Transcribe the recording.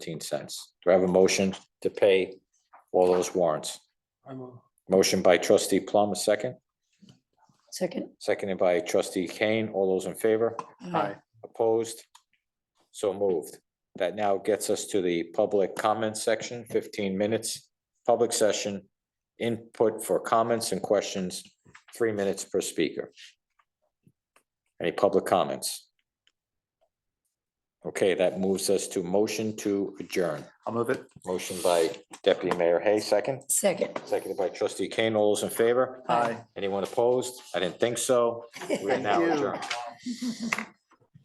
cents. Do I have a motion to pay all those warrants? I move. Motion by trustee Plum, a second, Second. seconded by trustee Kane. All those in favor? Aye. Opposed? So moved. That now gets us to the public comment section, fifteen minutes, public session, input for comments and questions, three minutes per speaker. Any public comments? Okay, that moves us to motion to adjourn. I'll move it. Motion by deputy mayor Hay, second, Second. seconded by trustee Kane. All those in favor? Aye. Anyone opposed? I didn't think so. We are now Thank you. adjourned.